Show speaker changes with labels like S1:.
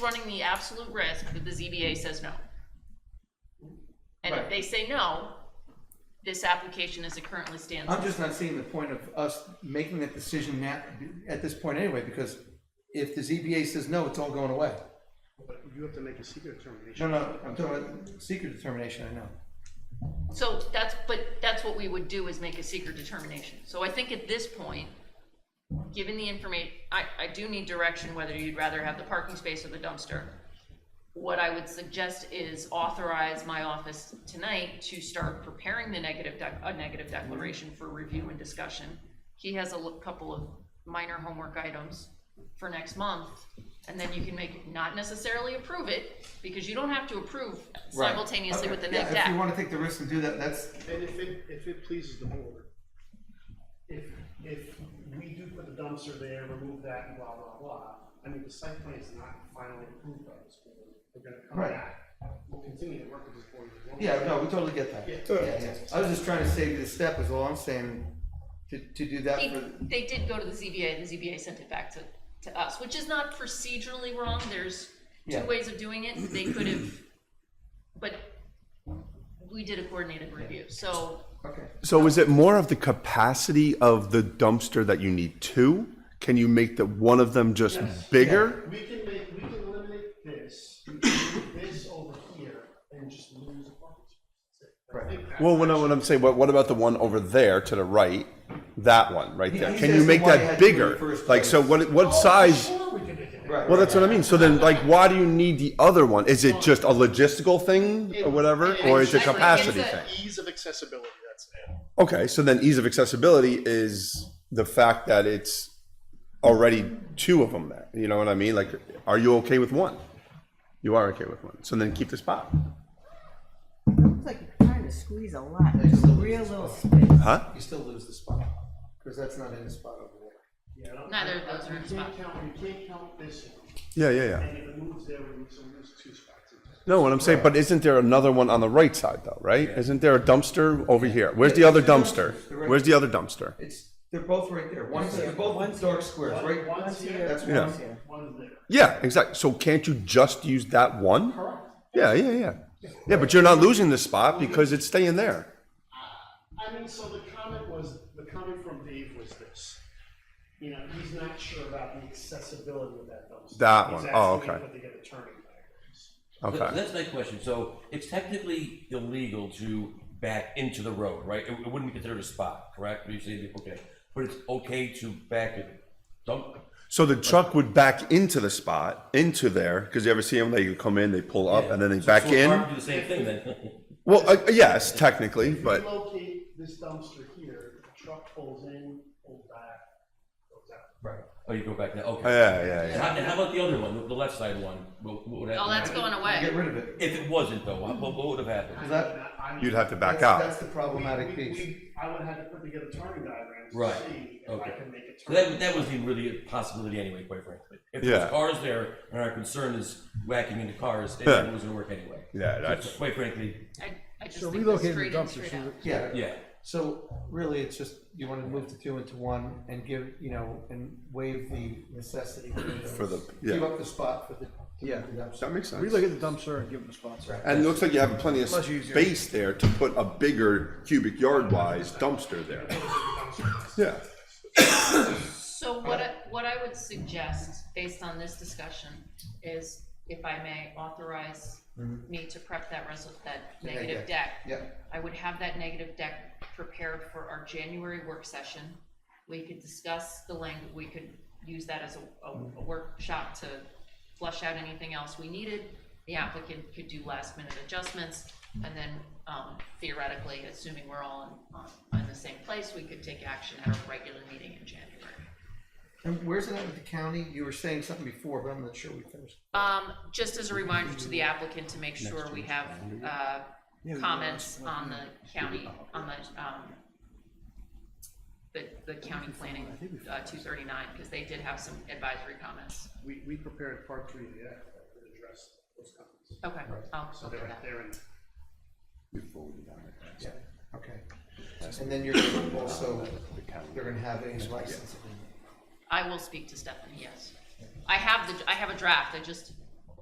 S1: running the absolute risk that the ZBA says no. And if
S2: Right.
S1: they say no, this application as it currently stands.
S2: I'm just not seeing the point of us making that decision now, at this point anyway, because if the ZBA says no, it's all going away.
S3: But you have to make a secret determination.
S2: No, no, I'm talking about secret determination, I know.
S1: So that's, but that's what we would do is make a secret determination. So I think at this point, given the information, I, I do need direction whether you'd rather have the parking space or the dumpster. What I would suggest is authorize my office tonight to start preparing the negative, dec- a negative declaration for review and discussion. He has a l- couple of minor homework items for next month, and then you can make, not necessarily approve it, because you don't have to approve simultaneously
S2: Okay,
S1: with the
S2: yeah,
S1: neg
S2: If
S1: deck.
S2: you wanna take the risk and do that, that's,
S3: And if it, if it pleases the board, if, if we do put the dumpster there, remove that and blah, blah, blah, I mean, the site plan is not finally approved by this board. We're gonna come
S2: Right.
S3: back, we'll continue to work with this board. as well.
S2: yeah, no, we totally get that.
S3: Yeah.
S2: Yeah, yeah. I was just trying to save you the step is all I'm saying, to, to do that
S1: They,
S2: for,
S1: they did go to the ZBA, the ZBA sent it back to, to us, which is not procedurally wrong, there's two
S2: Yeah.
S1: ways of doing it, they could have, but we did a coordinated review, so
S2: okay.
S4: So is it more of the capacity of the dumpster that you need two? Can you make the one of them just bigger?
S3: We can make, we can eliminate this, move this over here, and just lose a parking space. That's it. I think that's
S4: Well, when I, what I'm saying, what, what about the one over there to the right? That one right
S2: He-
S4: there.
S2: he's
S4: Can you make
S2: asking why I
S4: that
S2: had to do it
S4: bigger?
S2: first
S4: Like, so
S2: place. Oh,
S4: what, what size?
S3: Sure, we can make it.
S2: Right.
S4: Well, that's what I mean. So then, like, why do you need the other one? Is it just a logistical thing or whatever, or is it a
S1: Actually,
S4: capacity
S1: it's a-
S4: thing?
S3: Ease of accessibility, that's it.
S4: Okay, so then ease of accessibility is the fact that it's already two of them there. You know what I mean? Like, are you okay with one? You are okay with one. So then keep the spot.
S5: Looks like you're trying to squeeze a lot,
S2: Yeah, just
S5: just
S2: a
S5: a
S2: little
S5: real
S2: bit.
S5: little space.
S4: Huh?
S2: You still lose the spot, cause that's not in the spot over there.
S3: Yeah, I don't-
S1: Neither of those are in
S3: You can't count- You can't count this one,
S4: Yeah, yeah, yeah.
S3: and if it moves there, we lose, so we lose two spots.
S4: No, what I'm saying, but isn't there another one on the right side though, right? Isn't there a dumpster over here? Where's the other dumpster? Where's the other dumpster?
S2: It's, they're both right there, one's, they're both dark squares, right?
S3: One's here,
S2: That's
S4: Yeah.
S2: one.
S3: one's there.
S4: Yeah, exactly. So can't you just use that one? Yeah, yeah, yeah. Yeah, but you're not losing the spot because it's staying there.
S3: I mean, so the comment was, the comment from Dave was this. You know, he's not sure about the accessibility of that dumpster.
S4: That one.
S3: He's
S4: Oh,
S3: asking
S4: okay.
S3: if they get a turning diagrams.
S6: So
S4: Okay.
S6: That's my question. So it's technically illegal to back into the road, right? It, it wouldn't be considered a spot, correct? You say, okay, but it's okay to back it, dump,
S4: So the truck would back into the spot, into there, because you ever see them, they come in, they pull up, and then they
S6: So-
S4: back
S6: so it's hard
S4: in?
S6: to Do the same thing then.
S4: Well, uh, yes, technically,
S3: If you
S4: but,
S3: locate this dumpster here, the truck pulls in, pulls back, goes out.
S6: Right. Oh, you go back there, okay.
S4: yeah, yeah, yeah.
S6: How, how about the other one, the left side one? What, what would happen?
S1: all Oh, that's going
S2: Get
S1: away.
S2: rid of it.
S6: If it wasn't though, what, what would have happened?
S2: Is that-
S3: And I- I'm-
S4: You'd have to back
S2: That's-
S4: out.
S2: That's the problematic
S3: We- we-
S2: piece.
S3: we- I would have had to put together turning diagrams to
S6: Right.
S3: see if I
S6: Okay.
S3: can make a
S6: So
S3: turn.
S6: that, that wasn't even really a possibility anyway, quite frankly. If
S4: Yeah.
S6: there's cars there and our concern is whacking into cars, it
S4: Yeah.
S6: was gonna work anyway.
S4: yeah, that's.
S6: Quite frankly,
S1: I, I just
S7: So
S1: think they're
S7: relocating
S1: straight
S7: the
S1: in,
S7: dumpster,
S1: straight
S7: so
S1: out.
S7: that-
S2: Yeah.
S6: yeah.
S2: So really, it's just, you wanna move the two into one and give, you know, and waive the necessity. For
S4: the-
S2: Give
S4: yeah.
S2: up the spot for the. Yeah.
S4: That makes sense.
S7: relook at the dumpster and give them the spots.
S4: And it looks like you have plenty of
S7: Much easier.
S4: space there to put a bigger cubic yard wise dumpster there. Yeah.
S1: So what I, what I would suggest, based on this discussion, is if I may authorize me to prep that res, Mm-hmm. that
S2: Yeah,
S1: negative
S2: yeah.
S1: deck.
S2: Yeah.
S1: I would have that negative deck prepared for our January work session. We could discuss the language, we could use that as a, a a workshop to flush out anything else we needed. The applicant could do last minute adjustments, and then um, theoretically, assuming we're all on, on, on the same place, we could take action at a regular meeting in January.
S2: And where's it at with the county? You were saying something before, but I'm not sure we finished.
S1: Um, just as a reminder to the applicant to make sure we have, uh, comments on the county, on the, um, the, the county planning, uh, two thirty-nine, because they did have some advisory comments.
S3: We, we prepared part three of the act that would address those companies.
S1: Okay, I'll,
S3: So
S1: I'll do
S3: they're,
S1: that.
S3: they're in.
S2: Yeah. Okay. And then you're also, they're gonna have a license. agreement.
S1: I will speak to Stephanie, yes. I have the, I have a draft, I just